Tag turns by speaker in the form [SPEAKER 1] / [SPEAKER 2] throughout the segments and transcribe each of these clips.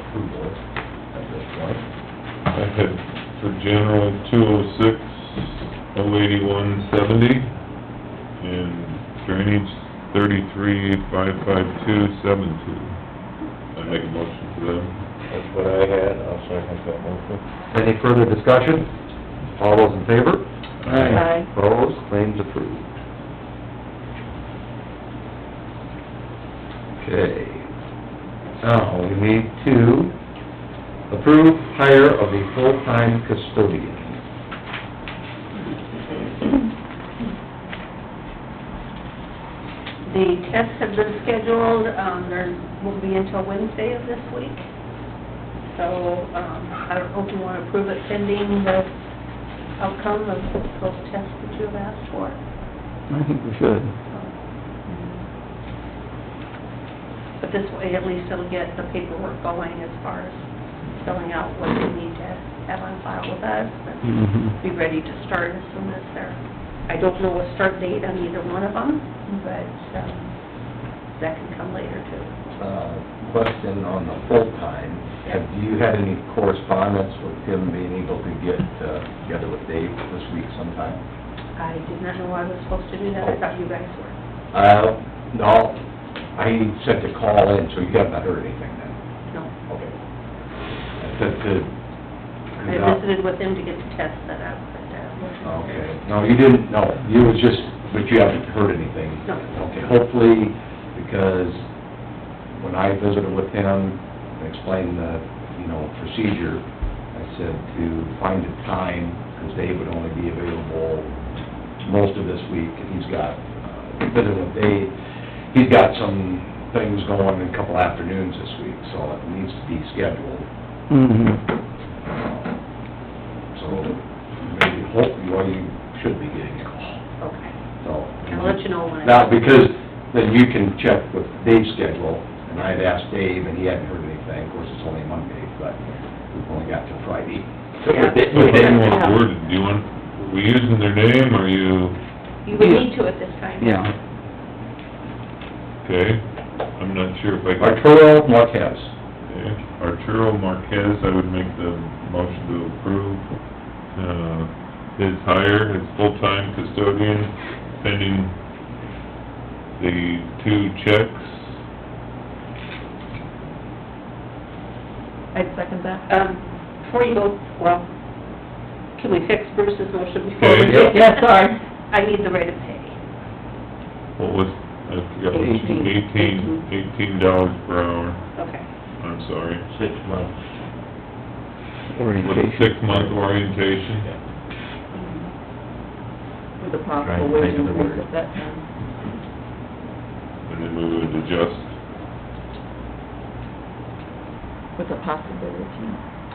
[SPEAKER 1] approval at this point.
[SPEAKER 2] I had for general two oh six, oh eighty-one seventy, and drainage thirty-three, five five two, seven two. I make a motion for them.
[SPEAKER 1] That's what I had, I'll second that motion. Any further discussion? All those in favor?
[SPEAKER 3] Aye. Aye.
[SPEAKER 1] Opposed, claims approved. Okay. Now, we need to approve hire of a full-time custodian.
[SPEAKER 3] The tests have been scheduled, um, there won't be until Wednesday of this week. So, um, I don't know if you wanna approve it pending the outcome of those tests that you have asked for.
[SPEAKER 4] I think we should.
[SPEAKER 3] But this way, at least it'll get the paperwork going as far as filling out what we need to have on file with us, and be ready to start as soon as they're, I don't know a start date on either one of them, but, um, that can come later too.
[SPEAKER 5] Uh, Question on the full-time, have you had any correspondence with him being able to get uh, together with Dave this week sometime?
[SPEAKER 3] I did not know I was supposed to do that, I thought you guys were.
[SPEAKER 5] Uh, no, I sent a call in, so you have not heard anything then?
[SPEAKER 3] No.
[SPEAKER 5] Okay. I sent to...
[SPEAKER 3] I visited with them to get the test set up, but, uh...
[SPEAKER 5] Okay, no, you didn't, no, you was just, but you haven't heard anything?
[SPEAKER 3] No.
[SPEAKER 5] Okay, hopefully, because when I visited with him and explained the, you know, procedure, I said to find a time, because Dave would only be available most of this week, and he's got, uh, visiting with Dave, he's got some things going in a couple afternoons this week, so it needs to be scheduled. So, maybe, hopefully, well, you should be getting a call.
[SPEAKER 3] Okay.
[SPEAKER 5] So.
[SPEAKER 3] I'll let you know when I-
[SPEAKER 5] Now, because then you can check with Dave's schedule, and I'd asked Dave, and he hadn't heard anything, of course, it's only Monday, but we've only got till Friday.
[SPEAKER 3] Yeah.
[SPEAKER 2] But how do you want it worded? Do you want, are we using their name, are you,
[SPEAKER 3] You would need to at this time.
[SPEAKER 4] Yeah,
[SPEAKER 2] okay? I'm not sure if I can,
[SPEAKER 5] Arturo Marquez.
[SPEAKER 2] okay? Arturo Marquez, I would make the motion to approve, uh, his hire as full-time custodian pending the two checks
[SPEAKER 6] I'd second that.
[SPEAKER 3] Um, before you go, well, can we fix Bruce's motion before we...
[SPEAKER 2] Okay.
[SPEAKER 6] Yeah, sorry.
[SPEAKER 3] I need the rate of pay.
[SPEAKER 2] What was, I forgot, what she-
[SPEAKER 3] Eighteen.
[SPEAKER 2] eighteen, eighteen dollars per hour,
[SPEAKER 3] Okay.
[SPEAKER 2] I'm sorry.
[SPEAKER 1] Six months.
[SPEAKER 2] With a
[SPEAKER 4] orientation.
[SPEAKER 2] six-month orientation,
[SPEAKER 6] With a
[SPEAKER 5] Right,
[SPEAKER 6] possible
[SPEAKER 5] think
[SPEAKER 6] wage
[SPEAKER 5] of the
[SPEAKER 6] increase
[SPEAKER 5] word.
[SPEAKER 6] at that um, time.
[SPEAKER 2] and then we would adjust,
[SPEAKER 6] With a possibility,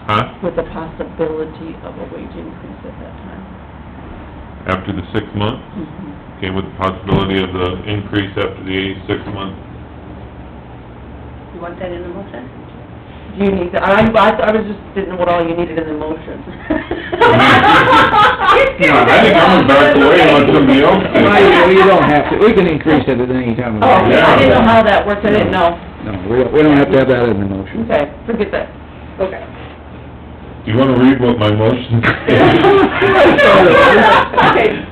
[SPEAKER 2] huh?
[SPEAKER 6] with a possibility of a wage increase at that time.
[SPEAKER 2] After the six month,
[SPEAKER 6] Mm-hmm.
[SPEAKER 2] okay, with the possibility of the increase after the six-month,
[SPEAKER 3] You want that in the motion?
[SPEAKER 6] Do you need that? I, I I was just, didn't know what all you needed in the motion.
[SPEAKER 2] No, I think I'm gonna back away and let somebody else do it.
[SPEAKER 4] Well, you don't have to, we can increase it at any time. of
[SPEAKER 6] Oh, I
[SPEAKER 4] the year.
[SPEAKER 6] didn't know how that worked, I didn't know.
[SPEAKER 4] No, we don't, we don't have to have that in the motion.
[SPEAKER 6] Okay, forget that.
[SPEAKER 3] Okay.
[SPEAKER 2] do you wanna read what my motion
[SPEAKER 3] Okay.
[SPEAKER 2] is?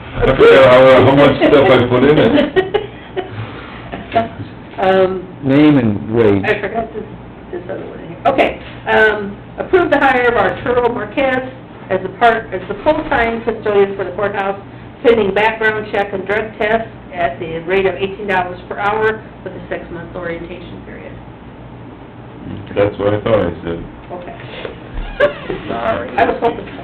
[SPEAKER 2] I forgot how, how much stuff I put in it.
[SPEAKER 3] Um,
[SPEAKER 4] Name and wage.
[SPEAKER 3] I forgot this, this other one here. Okay, um, approve the hire of Arturo Marquez as a part, as the full-time custodian for the courthouse, pending background check and drug test at the rate of eighteen dollars per hour with a six-month orientation period.
[SPEAKER 2] That's what I thought I said.
[SPEAKER 3] Okay.
[SPEAKER 5] Sorry.
[SPEAKER 3] I was hoping so.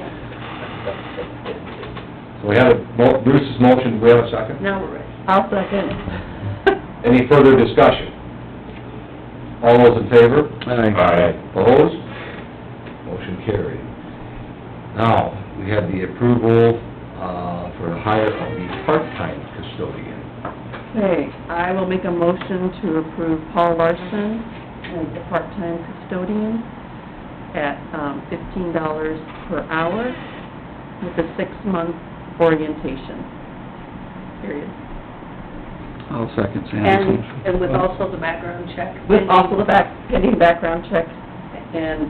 [SPEAKER 5] So we have a, mo- Bruce's motion, we have a second?
[SPEAKER 3] Now we're ready.
[SPEAKER 6] I'll second.
[SPEAKER 5] Any further discussion? All those in favor?
[SPEAKER 4] Aye.
[SPEAKER 5] Opposed? Motion carried. Now, we have the approval, uh, for the hire of the part-time custodian.
[SPEAKER 6] Okay, I will make a motion to approve Paul Larson as the part-time custodian at um, fifteen dollars per hour with a six-month orientation period.
[SPEAKER 4] I'll second Sam's
[SPEAKER 3] And,
[SPEAKER 4] motion.
[SPEAKER 3] and with also the background check.
[SPEAKER 6] With also the back, pending background check And